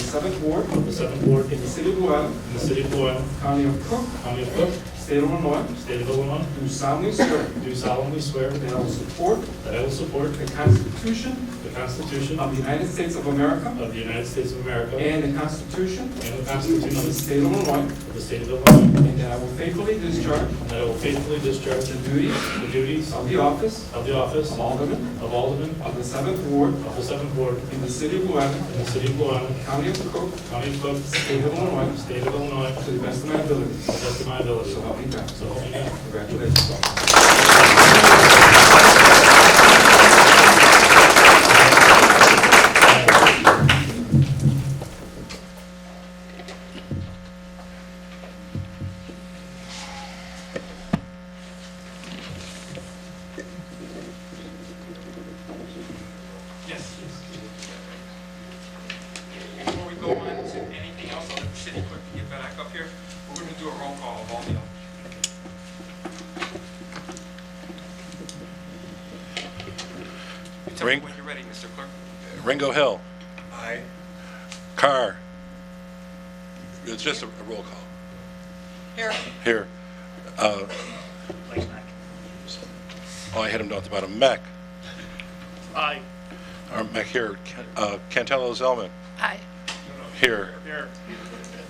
seventh ward of the Seventh Ward in the city of Llewellyn, in the City of Doyle, county of Cook, County of Cook, state of Illinois, State of Illinois, do solemnly swear do solemnly swear that I will support that I will support the Constitution the Constitution of the United States of America of the United States of America and and the Constitution the of the Constitution state of Illinois, of the State of Illinois, and that I will faithfully discharge and that I will faithfully discharge the duties the duties of the office of the office of Alderman of Alderman of the seventh ward of the Seventh Ward in the city of Llewellyn, in the City of Doyle, county of Cook, County of Cook, state of Illinois, State of Illinois, to the best of my ability. to the best of my ability. So help me God. So help me God. Congratulations. Yes. Before we go on to anything else, I'll let the city clerk get back up here. We're going to do a roll call of all the elections. You Tell me Ring. when you're ready, Mr. Clerk. Ringo Hill, Aye. Carr. It's just a a roll call. Here. Here. Uh, Oh, I hit him down at the bottom. Mack. Aye. Or Mack here. Can- uh, Cantello Zelman. Aye. Here. Here.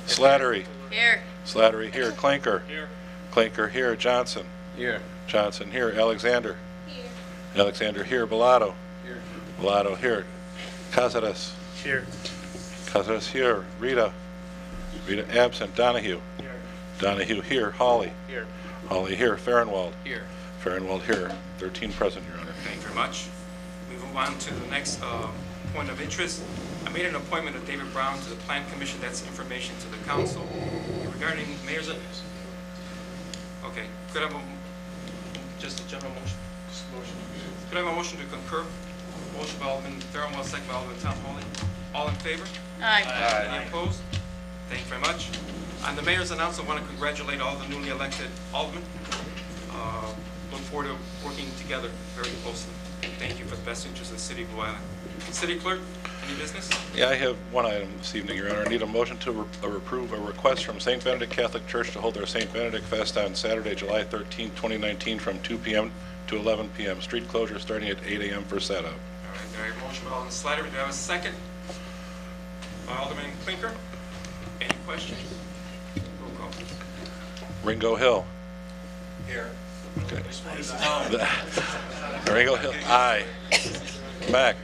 Slattery. Here. Slattery here. Clinker. Here. Clinker here. Johnson. Here. Johnson here. Alexander. Alexander here. Bellato. Here. Bellato here. Cazares. Here. Cazares here. Rita. Rita absent. Donahue. Here. Donahue here. Holly. Here. Holly here. Farnwald. Here. Farnwell here, 13 present, Your Honor. Thank you very much. We move on to the next uh, point of interest. I made an appointment of David Brown to the Plan Commission. That's information to the council regarding mayor's... Okay, could I have a, just a general motion? Could I have a motion to concur? Motion by Alderman Fairwell, second by Alderman Tom Holly. All in favor? Aye. Uh, Any opposed? Thank you very much. On the mayor's announcement, I want to congratulate all the newly elected aldermen. Uh, Look forward to working together very closely. Thank you for the best interest of the city of Blue Island. City clerk, any business? Yeah, I have one item this evening, Your Honor. I need a motion to re- uh, approve a request from St. Benedict Catholic Church to hold their St. Benedict Fest on Saturday, July 13, 2019, from 2 p.m. to 11 p.m. Street closure starting at 8 a.m. for All setup. right, very motion by Alderman Slattery, do I have a second? By Alderman Clinker, any questions? Roll call, please. Ringo Hill. Here. Okay. Ringo Hill, aye. Mack.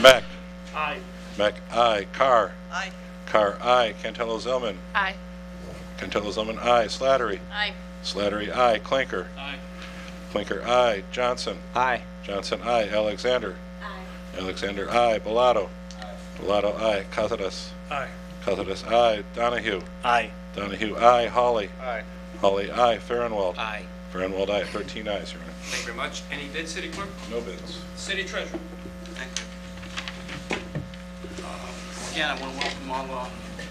Mack. Aye. Mack, aye. Carr. Aye. Carr, aye. Cantello Zelman. Aye. Cantello Zelman, aye. Slattery. Aye. Slattery, aye. Clinker. Aye. Clinker, aye. Johnson. Aye. Johnson, aye. Alexander. Aye. Alexander, aye. Bellato. Aye. Bellato, aye. Cazares. Aye. Cazares, aye. Donahue. Aye. Donahue, aye. Holly. Aye. Holly, aye. Farnwell. Aye. Farnwell, aye. 13 ayes, Your Honor. Thank you very much. Any bid, city clerk? No bids. City treasurer? Thank you. Uh, Again, I want to welcome all uh,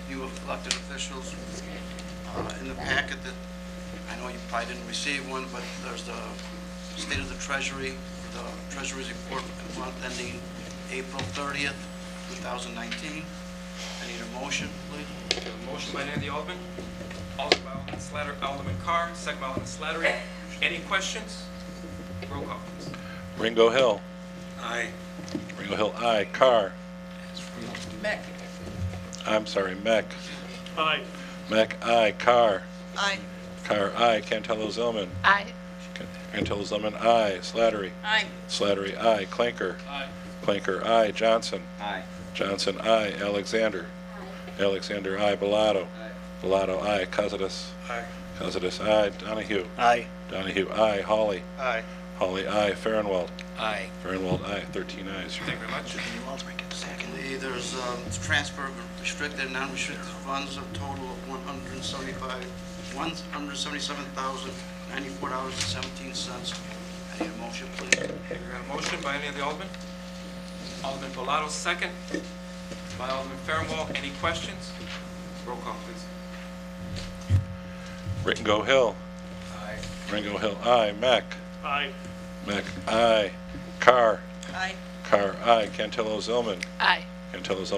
you elected officials uh, in the packet that, I know you probably didn't receive one, but there's the State of the Treasury, the Treasury's report for the month ending April 30th, 2019. I need a motion, please. We have a motion by Andy Alderman, Alderman by Alderman Slattery, Alderman Carr, second by Alderman Slattery. Any questions? Roll call, please. Ringo Hill. Aye. Ringo Hill, aye. Carr. Mac. I'm sorry, Mack. Aye. Mack, aye. Carr. Aye. Carr, aye. Cantello Zelman. Aye. Cantello Zelman, aye. Slattery. Aye. Slattery, aye. Clinker. Aye. Clinker, aye. Johnson. Aye. Johnson, aye. Alexander. Alexander, aye. Bellato. Bellato, aye. Costas. Aye. Costas, aye. Donahue. Aye. Donahue, aye. Holly. Aye. Holly, aye. Farnwell. Aye. Farnwell, aye. 13 ayes. Thank you very much. Secondly, there's um, transfer of restricted and non-restricted funds of total of 175, $177,094.17. I need a motion, please. We have a motion by any of the aldermen. Alderman Bellato, second by Alderman Fairwell. Any questions? Roll call, please. Ringo Hill. Aye. Ringo Hill, aye. Mack. Aye. Mack, aye. Carr. Aye. Carr, aye. Cantillo Zelman. Aye. Can you tell us how